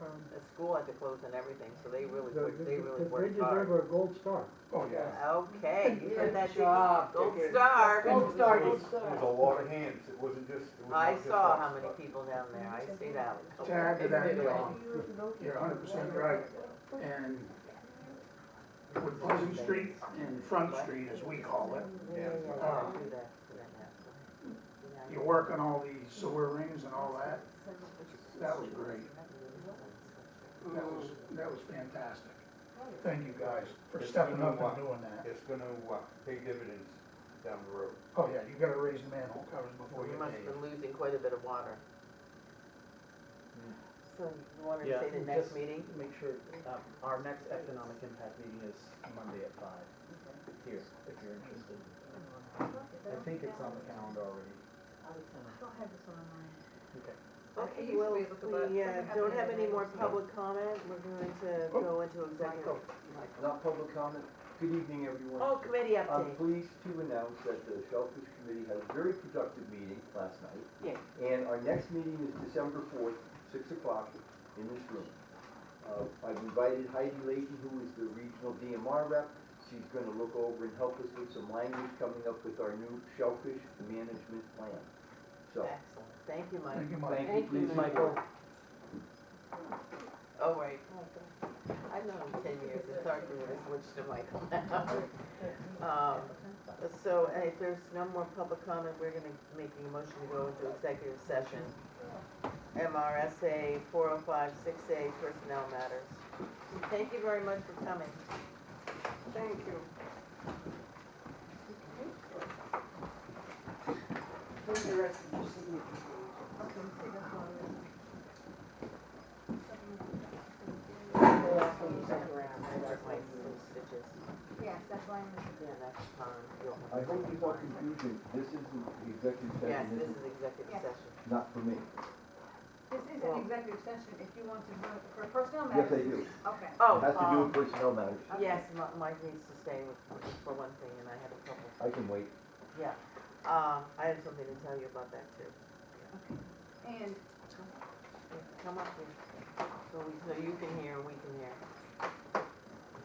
um, The school had to close and everything, so they really, the, worked- the, they really the bridge worked is hard. over a gold star. Oh, yeah. Okay, you heard Good that, Dicky? job, Gold Dicky. star. Gold star, It gold was- It was a star. lot of hands, it wasn't just, it was I not just saw us, how many but- people down there, I see that. To add to that, John, you're hundred percent right, and with Pleasant Street and Front Street, as we call it, Yeah. uh, you work on all these sewer rings and all that, that was great. That was, that was fantastic. Thank you guys for stepping up and doing that. It's gonna, uh, pay dividends down the road. Oh, yeah, you gotta raise the manhole covers before We you must have pave. been losing quite a bit of water. Hmm. So you wanted to Yeah, say the next just- meeting? Make sure, um, our next economic impact meeting is Monday at five, here, if you're interested. I think it's on the calendar already. Okay. Okay, used to well, be able to, but we uh, something don't happened have any in the more middle. public comment, we're going to Oh. go into executive. Michael. Not public comment. Good evening, everyone. Oh, committee I'm update. pleased to announce that the Shellfish Committee had a very productive meeting last night. Yay. And our next meeting is December fourth, six o'clock, in this room. Uh, I've invited Heidi Leahy, who is the regional DMR rep. She's gonna look over and help us with some language coming up with our new shellfish management plan. So, Excellent, thank you, Mike. Thank you, Mike. thank you, please, Michael. Oh, right. I've known him ten years, it's hard to really switch to Michael now. Um, So, hey, if there's no more public comment, we're gonna make a motion to go into executive session. MRSA four oh five six A personnel matters. Thank you very much for coming. Thank you. White stitches, Yes, that's why I'm. yeah, that's fine. You'll have I to- hope you want confusion, this is the executive Yes, session, this this is executive Yes. session. is not for me. This is an executive session, if you want to do it for personnel Yes, I matters. do. Okay. It has to do Oh, with personnel matters. um, yes, Mi- Mike needs to stay with, for one thing, and I had a couple, I can wait. yeah. Uh, I have something to tell you about that too. And Yeah, Come up here, so we, so you can hear, we can hear.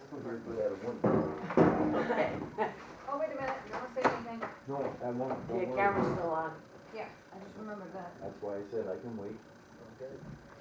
Still here for that one. Okay, Oh, wait a minute, you want to say anything? No, I won't. Don't worry. still on. Yeah, I just remembered that. That's why I said I can wait. Well, good.